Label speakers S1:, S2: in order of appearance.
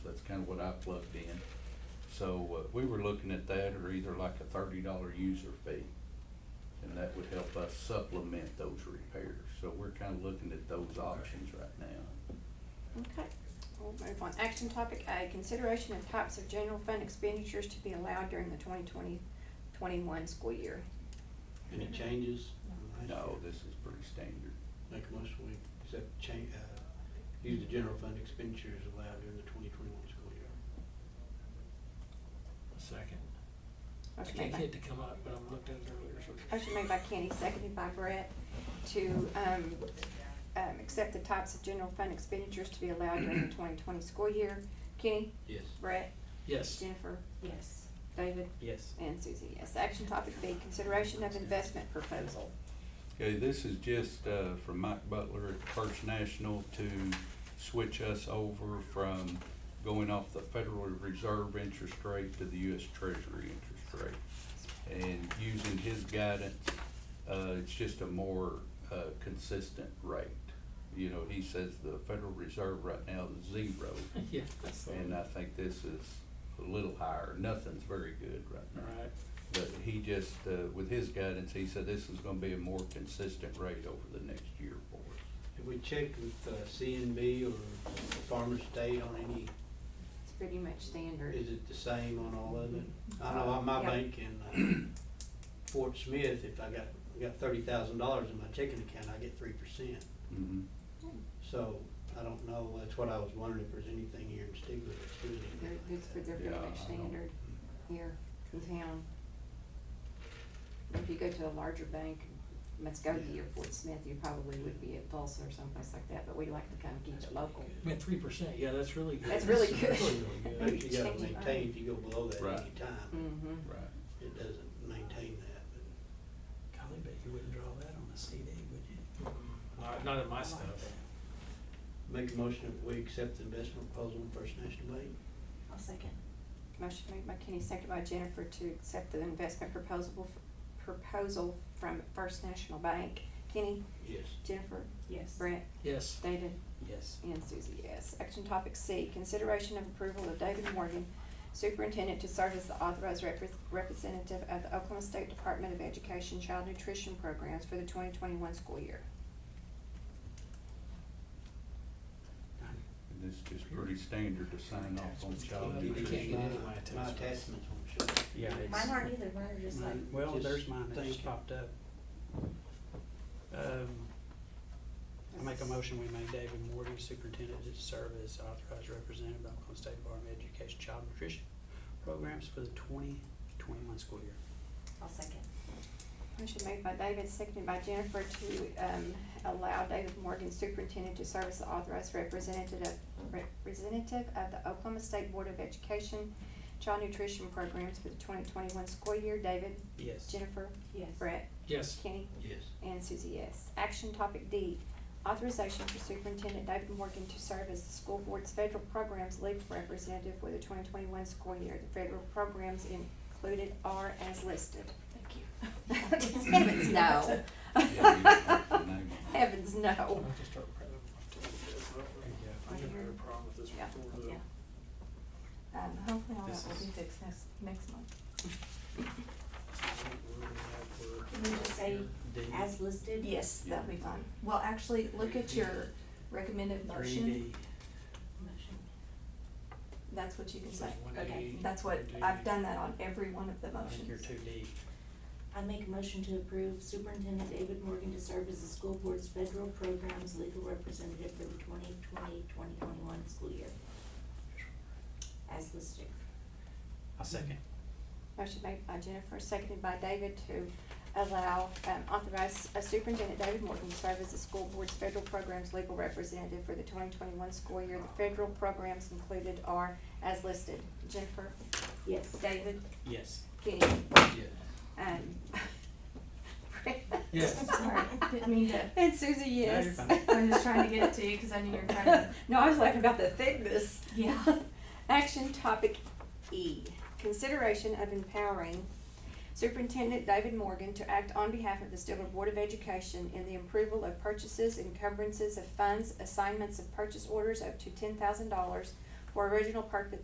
S1: kinda what I plugged in. So, uh, we were looking at that or either like a thirty dollar user fee. And that would help us supplement those repairs. So we're kinda looking at those options right now.
S2: Okay, we'll move on. Action topic A, consideration of types of general fund expenditures to be allowed during the 2020-21 school year.
S3: Any changes?
S2: Mm-hmm.
S1: No, this is pretty standard.
S3: Make a motion, we accept change, uh, use the general fund expenditures allowed during the twenty twenty-one school year.
S4: Second. I
S2: Motion made
S4: can't
S2: by-
S4: get it to come up, but I looked at it earlier, so.
S2: Motion made by Kenny, seconded by Brett, to, um, um, accept the types of general fund expenditures to be allowed during the twenty twenty school year. Kenny,
S3: Yes.
S2: Brett,
S4: Yes.
S2: Jennifer,
S5: Yes.
S2: David,
S4: Yes.
S2: and Susie, yes. Action topic B, consideration of investment proposal.
S1: Okay, this is just, uh, from Mike Butler at First National to switch us over from going off the Federal Reserve interest rate to the US Treasury interest rate. And using his guidance, uh, it's just a more, uh, consistent rate. You know, he says the Federal Reserve right now is zero,
S4: Yeah, that's all.
S1: and uh, I think this is a little higher. Nothing's very good right now.
S4: Alright,
S1: But he just, uh, with his guidance, he said this is gonna be a more consistent rate over the next year for us.
S3: Have we checked with, uh, CNB or Farmer State on any,
S2: It's pretty much standard.
S3: is it the same on all of it? I know on my
S2: Yeah.
S3: bank in, uh, Fort Smith, if I got, I got thirty thousand dollars in my checking account, I get three percent.
S1: Mhm.
S3: So, I don't know, that's what I was wondering, if there's anything here in Stigler that's doing anything
S2: They're,
S3: like
S2: it's,
S3: that.
S2: they're pretty
S1: Yeah, I
S2: much
S1: don't-
S2: standard here in town. If you go to a larger bank, Muskogee or Fort Smith, you probably would be at Tulsa or someplace like that, but we like to kind of
S3: That's
S2: get
S3: pretty
S2: local.
S3: good.
S4: I mean, three percent, yeah, that's really good.
S2: That's really good.
S4: That's really, really
S3: But
S4: good.
S3: you gotta
S2: Change it back.
S3: maintain, if you go below that
S1: Right.
S3: any time,
S2: Mm-hmm.
S1: Right.
S3: it doesn't maintain that, but
S4: Golly, bet you wouldn't draw that on a CD, would you? Uh, Not, not in my stuff.
S3: make a motion that we accept the investment proposal in First National Bank.
S5: I'll second.
S2: Motion made by Kenny, seconded by Jennifer to accept the investment proposal, proposal from First National Bank. Kenny,
S3: Yes.
S2: Jennifer,
S5: Yes.
S2: Brett,
S4: Yes.
S2: David,
S4: Yes.
S2: And Susie, yes. Action topic C, consideration of approval of David Morgan, superintendent to serve as the authorized repre- representative of the Oklahoma State Department of Education Child Nutrition Programs for the twenty twenty-one school year.
S1: And this is just pretty standard to sign off on child
S4: You can't get
S1: nutrition.
S4: in my
S3: My
S4: attachments.
S3: attachments on show.
S6: Yeah, it's-
S5: Mine aren't either, mine are just like,
S3: Mine-
S6: Well,
S3: Just
S6: there's mine that just
S3: thinking.
S6: popped up. Um, I make a motion, we make David Morgan superintendent to serve as authorized representative of Oklahoma State Department of Education Child Nutrition Programs for the twenty twenty-one school year.
S5: I'll second.
S2: Motion made by David, seconded by Jennifer to, um, allow David Morgan superintendent to serve as the authorized representative, of- representative of the Oklahoma State Board of Education Child Nutrition Programs for the twenty twenty-one school year. David,
S6: Yes.
S2: Jennifer,
S5: Yes.
S2: Brett,
S4: Yes.
S2: Kenny.
S3: Yes.
S2: And Susie, yes. Action topic D, authorization for Superintendent David Morgan to serve as the school board's federal programs lead representative for the twenty twenty-one school year. The federal programs included are as listed.
S5: Thank you.
S2: Heavens, no.
S1: Yeah, you don't have to name it.
S2: Heavens,
S4: I'm
S2: no.
S4: gonna just start prepping to look at this up. Yeah, I never had a problem with this
S2: Yeah,
S4: before,
S5: yeah.
S4: though.
S5: Um, hopefully all
S4: This
S5: that will
S4: is-
S5: be fixed next, next month.
S4: So we're gonna have for-
S5: Can we just say
S4: D.
S5: as listed? Yes, that'll be fine. Well, actually, look at your recommended motion.
S6: Three D.
S5: Motion. That's what you can say.
S4: There's one
S5: Okay,
S4: A,
S5: that's what,
S4: one
S5: I've
S4: D.
S5: done that on every one of the
S6: I think you're
S5: motions.
S6: too deep.
S7: I make a motion to approve Superintendent David Morgan to serve as the school board's federal programs legal representative for the 2020-2021 school year. As listed.
S6: I second.
S2: Motion made by Jennifer, seconded by David to allow, um, authorize uh, Superintendent David Morgan to serve as the school board's federal programs legal representative for the twenty twenty-one school year. The federal programs included are as listed. Jennifer,
S7: Yes.
S2: David,
S6: Yes.
S2: Kenny.
S3: Yes.
S2: Um,
S4: Yes.
S5: Sorry, didn't mean to.
S2: And Susie, yes.
S6: No, you're
S5: I'm just trying to get it to you because I knew you were trying to.
S2: No, I was laughing about the thickness.
S5: Yeah.
S2: Action topic E, consideration of empowering Superintendent David Morgan to act on behalf of the Stillman Board of Education in the approval of purchases, encumbrances of funds, assignments of purchase orders up to ten thousand dollars for original purpose